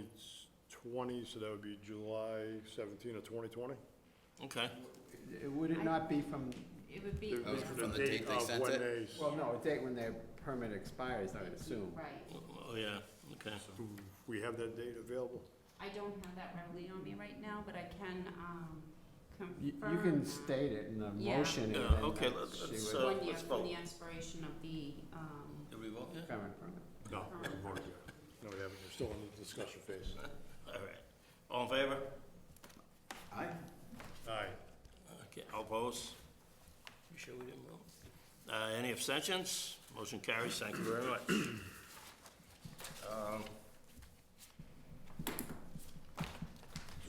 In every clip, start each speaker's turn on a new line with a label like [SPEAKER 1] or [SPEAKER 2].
[SPEAKER 1] 2020, so that would be July 17 of 2020?
[SPEAKER 2] Okay.
[SPEAKER 3] It- Would it not be from,
[SPEAKER 4] It would be,
[SPEAKER 1] It was
[SPEAKER 4] yeah,
[SPEAKER 1] for
[SPEAKER 5] from the date they sent
[SPEAKER 1] Of when
[SPEAKER 5] it?
[SPEAKER 1] they, s-
[SPEAKER 3] well, no, a date when their permit expires, I would assume.
[SPEAKER 4] right.
[SPEAKER 2] Oh, yeah, okay.
[SPEAKER 1] we have that date available?
[SPEAKER 4] I don't have that readily on me right now, but I can, um,
[SPEAKER 3] You,
[SPEAKER 4] confirm.
[SPEAKER 3] you can
[SPEAKER 4] that.
[SPEAKER 3] state it in the
[SPEAKER 4] Yeah.
[SPEAKER 3] motion and
[SPEAKER 2] Yeah,
[SPEAKER 3] then
[SPEAKER 2] okay,
[SPEAKER 3] that
[SPEAKER 2] let's-
[SPEAKER 3] she
[SPEAKER 2] let's,
[SPEAKER 3] would
[SPEAKER 2] uh,
[SPEAKER 4] One year from
[SPEAKER 2] vote.
[SPEAKER 4] the expiration of the, um,
[SPEAKER 2] Did we vote yet?
[SPEAKER 3] come in front of
[SPEAKER 1] No, we haven't voted yet. No, we haven't, we're still in the discussion phase.
[SPEAKER 2] All right. All in favor?
[SPEAKER 5] Aye.
[SPEAKER 1] Aye.
[SPEAKER 2] Okay, all opposed? You sure we didn't vote? Uh, any abstentions? Motion carries, thank you very much. Um,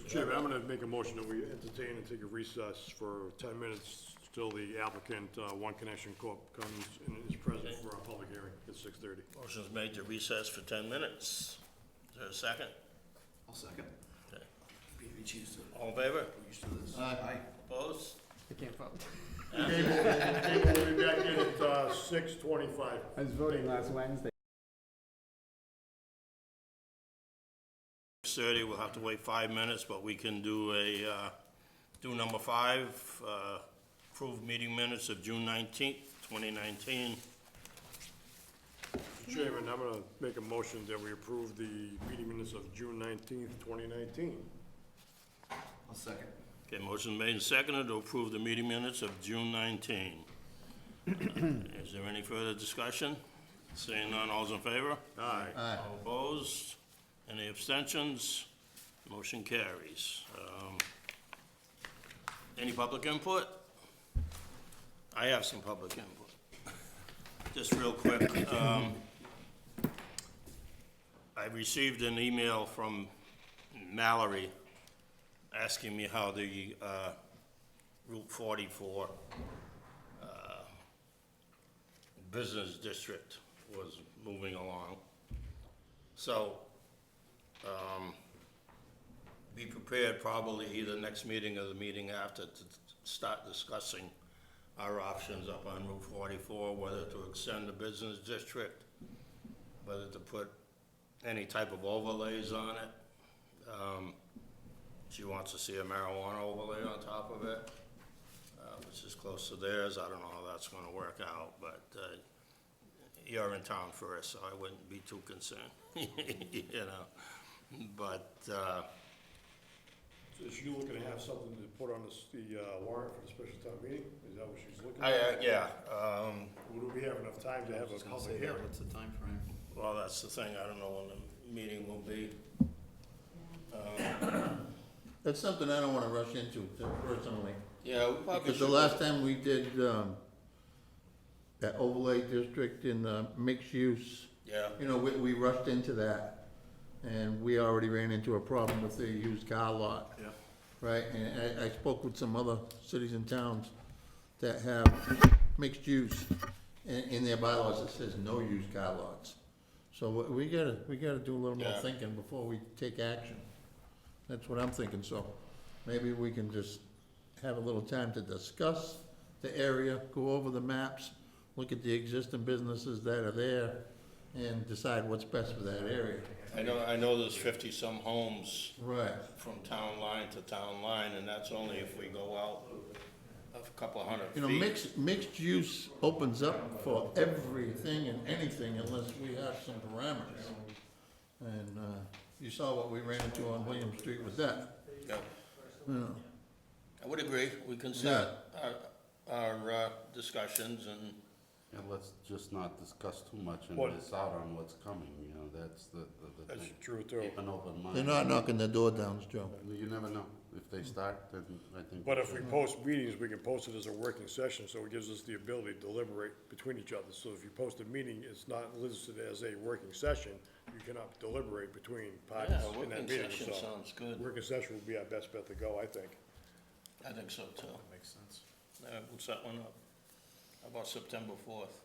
[SPEAKER 1] Mr. Chairman, I'm going to make a motion that we entertain and take a recess for 10 minutes till the applicant, uh, One Connection Corp., comes and is present for our public hearing at 6:30.
[SPEAKER 2] Motion's made to recess for ten minutes. Is there a second?
[SPEAKER 5] I'll second.
[SPEAKER 2] Okay.
[SPEAKER 5] We used to,
[SPEAKER 2] All in favor?
[SPEAKER 5] we used to this. Aye.
[SPEAKER 2] Opposed?
[SPEAKER 3] I can't vote.
[SPEAKER 1] We'll be back in at uh, 6:25.
[SPEAKER 3] I was voting last Wednesday.
[SPEAKER 2] Thirty, we'll have to wait five minutes, but we can do a, uh, do number five, uh, approve meeting minutes of June nineteenth, twenty nineteen.
[SPEAKER 1] Mr. Chairman, I'm going to make a motion that we approve the meeting minutes of June 19th, 2019.
[SPEAKER 5] I'll second.
[SPEAKER 2] Okay, motion made and seconded to approve the meeting minutes of June 19. Is there any further discussion? Seeing none, all's in favor?
[SPEAKER 1] Aye.
[SPEAKER 2] All opposed? Any abstentions? Motion carries. Um, Any public input? I have some public input. Just real quick, um, I received an email from Mallory asking me how the uh, Route 44 uh, business district was moving along. So, um, be prepared probably either next meeting or the meeting after to start discussing our options up on Route 44, whether to extend the business district, whether to put any type of overlays on it. Um, She wants to see a marijuana overlay on top of it, uh, which is close to theirs. I don't know how that's gonna work out, but, uh, you're in town first, so I wouldn't be too concerned, you know? But, uh,
[SPEAKER 1] So Is she looking to have something to put on this- the uh, warrant for the special town meeting? Is that what she's looking
[SPEAKER 2] I,
[SPEAKER 1] at?
[SPEAKER 2] uh, yeah, um,
[SPEAKER 1] Would we have enough time to have a public hearing?
[SPEAKER 5] What's the timeframe?
[SPEAKER 2] well, that's the thing, I don't know when the meeting will be.
[SPEAKER 6] That's something I don't wanna rush into personally,
[SPEAKER 2] Yeah, we probably
[SPEAKER 6] because the
[SPEAKER 2] should,
[SPEAKER 6] last time we did, um, that overlay district in the mixed use,
[SPEAKER 2] yeah,
[SPEAKER 6] you know, we, we rushed into that. And we already ran into a problem with the used car lot,
[SPEAKER 1] Yeah.
[SPEAKER 6] right? And I, I spoke with some other cities and towns that have mixed use in, in their bylaws that says no used car lots. So we- we gotta, we gotta do a little more
[SPEAKER 2] Yeah.
[SPEAKER 6] thinking before we take action. That's what I'm thinking, so maybe we can just have a little time to discuss the area, go over the maps, look at the existing businesses that are there, and decide what's best for that area.
[SPEAKER 2] I know, I know there's fifty-some homes
[SPEAKER 6] Right.
[SPEAKER 2] from town line to town line, and that's only if we go out a couple hundred feet.
[SPEAKER 6] You know, mixed, mixed use opens up for everything and anything unless we have some parameters. And, uh, you saw what we ran into on William Street with that,
[SPEAKER 2] Yeah.
[SPEAKER 6] you know.
[SPEAKER 2] I would agree, we can set our, our uh, discussions and,
[SPEAKER 7] And let's just not discuss too much and
[SPEAKER 1] What-
[SPEAKER 7] miss out on what's coming, you know, that's the, the- the
[SPEAKER 1] That's
[SPEAKER 7] thing.
[SPEAKER 1] true, too.
[SPEAKER 7] Keep an open mind.
[SPEAKER 6] They're not knocking the door down, Joe.
[SPEAKER 7] You never know. If they start, then I think.
[SPEAKER 1] But if we post meetings, we can post it as a working session, so it gives us the ability to deliberate between each other. So if you post a meeting, it's not listed as a working session, you cannot deliberate between parties
[SPEAKER 2] yeah,
[SPEAKER 1] in that
[SPEAKER 2] working
[SPEAKER 1] meeting,
[SPEAKER 2] session
[SPEAKER 1] so.
[SPEAKER 2] sounds good.
[SPEAKER 1] Working session would be our best bet to go, I think.
[SPEAKER 2] I think so too.
[SPEAKER 5] Makes sense.
[SPEAKER 2] Uh, we'll set one up. How about September fourth?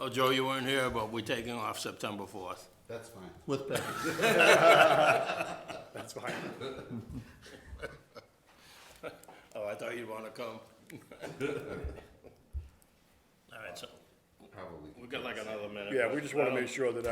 [SPEAKER 2] Oh, Joe, you weren't here, but we're taking off September fourth.
[SPEAKER 7] That's fine.
[SPEAKER 6] With that,
[SPEAKER 1] That's fine.
[SPEAKER 2] Oh, I thought you'd wanna come. All right, so
[SPEAKER 7] Probably.
[SPEAKER 2] we got like another minute.
[SPEAKER 1] Yeah, we just want
[SPEAKER 2] I
[SPEAKER 1] to
[SPEAKER 2] don't-
[SPEAKER 1] make sure that